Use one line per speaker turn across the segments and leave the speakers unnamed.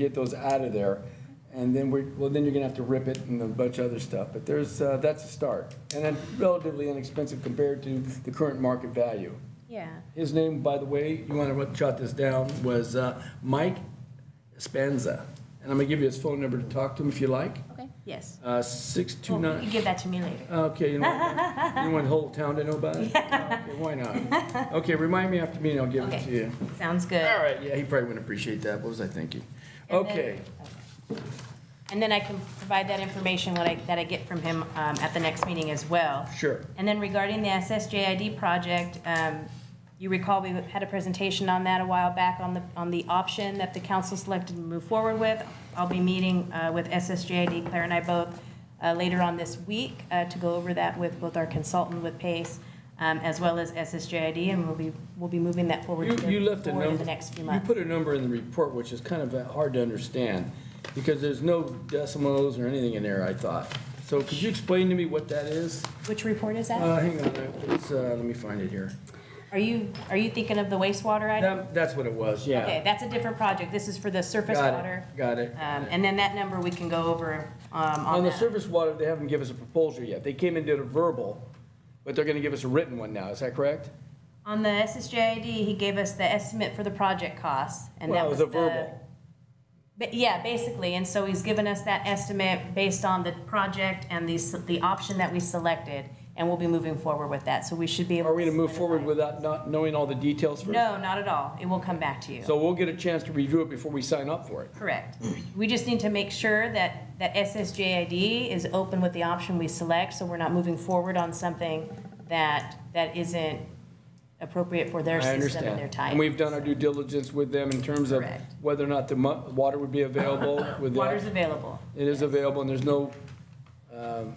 get those out of there. And then we're, well, then you're gonna have to rip it and a bunch of other stuff, but there's, uh, that's a start. And then relatively inexpensive compared to the current market value.
Yeah.
His name, by the way, you wanna write- jot this down, was, uh, Mike Spanza. And I'm gonna give you his phone number to talk to him if you like,
Okay. Yes.
uh, six two
Well,
nine.
you give that to me later.
Okay, you want, you want the whole town to know about it? Okay, Why not? Okay, remind me after me and I'll give it
Okay.
to you.
Sounds good.
All right, yeah, he probably wouldn't appreciate that, what was I thinking?
And then-
Okay,
And then I can provide that information what I, that I get from him um, at the next meeting as well.
sure.
And then regarding the SSJID project, um, you recall we had a presentation on that a while back on the, on the option that the council selected to move forward with. I'll be meeting uh, with SSJID, Claire and I both, uh, later on this week uh, to go over that with both our consultant with PACE um, as well as SSJID, and we'll be, we'll be moving that forward.
You, you left a
forward
number.
in the next few
You
months.
put a number in the report, which is kind of uh, hard to understand, because there's no decimals or anything in there, I thought. So could you explain to me what that is?
Which report is that?
Uh, hang on, it's, uh, let me find it here.
Are you, are you thinking of the wastewater item?
That- that's what it was, yeah.
Okay, that's a different project. This is for the surface
Got it,
water.
Got it.
Um, And then that number we can go over um,
On
on
the
that.
surface water, they haven't given us a proposal yet. They came and did a verbal, but they're gonna give us a written one now, is that correct?
On the SSJID, he gave us the estimate for the project costs, and
Well,
that
it
was
was a
the...
verbal.
But yeah, basically, and so he's given us that estimate based on the project and the, s- the option that we selected, and we'll be moving forward with that, so we should be able...
Are we gonna move forward
solidify.
without not knowing all the details first?
No, not at all. It will come back to you.
So we'll get a chance to review it before we sign up for it.
Correct. We just need to make sure that, that SSJID is open with the option we select, so we're not moving forward on something that, that isn't appropriate for their
I
system and
understand.
their time.
And we've done our due diligence with them in terms of
Correct.
whether or not the mu- water would be available with
Water's
that.
available.
It is available, and there's no um,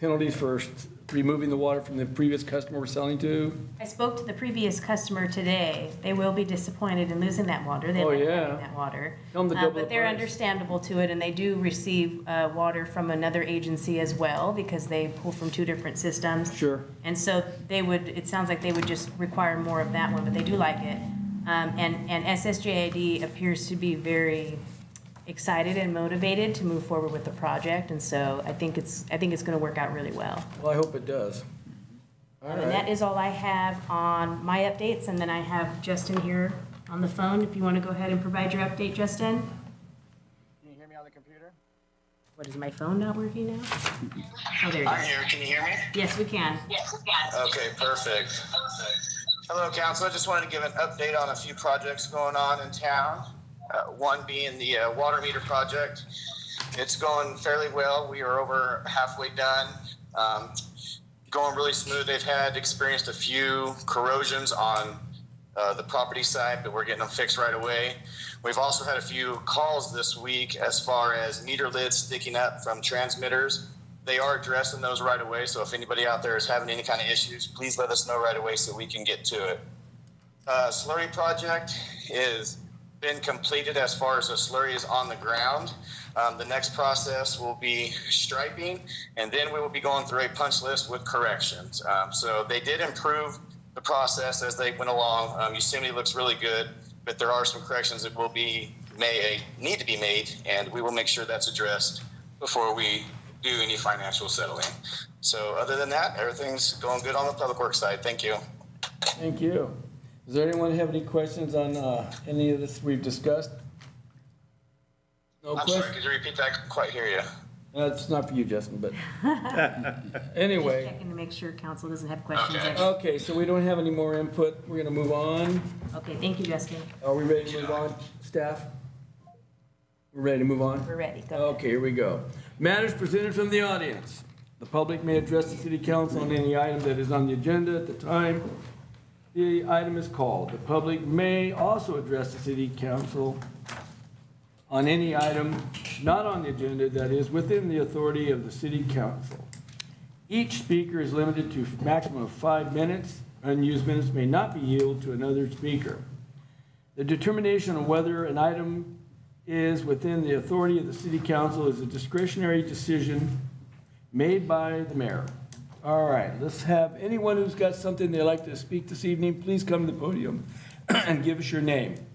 penalties for s- removing the water from the previous customer we're selling to.
I spoke to the previous customer today. They will be disappointed in losing that water. They
Oh,
like
yeah.
having that water.
Tell 'em to
Uh,
double the
But they're
price.
understandable to it, and they do receive uh, water from another agency as well, because they pull from two different systems.
Sure.
And so they would, it sounds like they would just require more of that one, but they do like it. Um, and, and SSJAD appears to be very excited and motivated to move forward with the project. And so I think it's, I think it's gonna work out really well.
Well, I hope it does. All
And that
right.
is all I have on my updates, and then I have Justin here on the phone, if you wanna go ahead and provide your update, Justin.
Can you hear me on the computer?
What, is my phone not working now? Oh, there
I'm
it is.
here. Can you hear me?
Yes, we can.
Okay, perfect. Hello, council. I just wanted to give an update on a few projects going on in town. Uh, one being the uh, water meter project. It's going fairly well. We are over halfway done. Um, going really smooth. They've had experienced a few corrosions on uh, the property side, but we're getting them fixed right away. We've also had a few calls this week as far as meter lids sticking up from transmitters. They are addressing those right away, so if anybody out there is having any kind of issues, please let us know right away so we can get to it. Uh, slurry project is been completed as far as the slurry is on the ground. Um, the next process will be striping, and then we will be going through a punch list with corrections. Um, so they did improve the process as they went along. Um, Yosemite looks really good, but there are some corrections that will be may need to be made, and we will make sure that's addressed before we do any financial settling. So other than that, everything's going good on the public works side. Thank you.
Thank you. Does there anyone have any questions on uh, any of this we've discussed? No
I'm
questions?
sorry, could you repeat that? I couldn't quite hear you.
That's not for you, Justin, but anyway,
Checking to make sure council doesn't have questions.
Okay.
extra.
okay, so we don't have any more input. We're gonna move on.
Okay, thank you, Justin.
Are we ready to move on, staff? We're ready to move on?
We're ready. Go ahead.
Okay, here we go. Matters presented from the audience. The public may address the city council on any item that is on the agenda at the time the item is called. The public may also address the city council on any item not on the agenda that is within the authority of the city council. Each speaker is limited to a maximum of five minutes. Unused minutes may not be yielded to another speaker. The determination of whether an item is within the authority of the city council is a discretionary decision made by the mayor. All right, let's have anyone who's got something they'd like to speak this evening, please come to the podium and give us your name.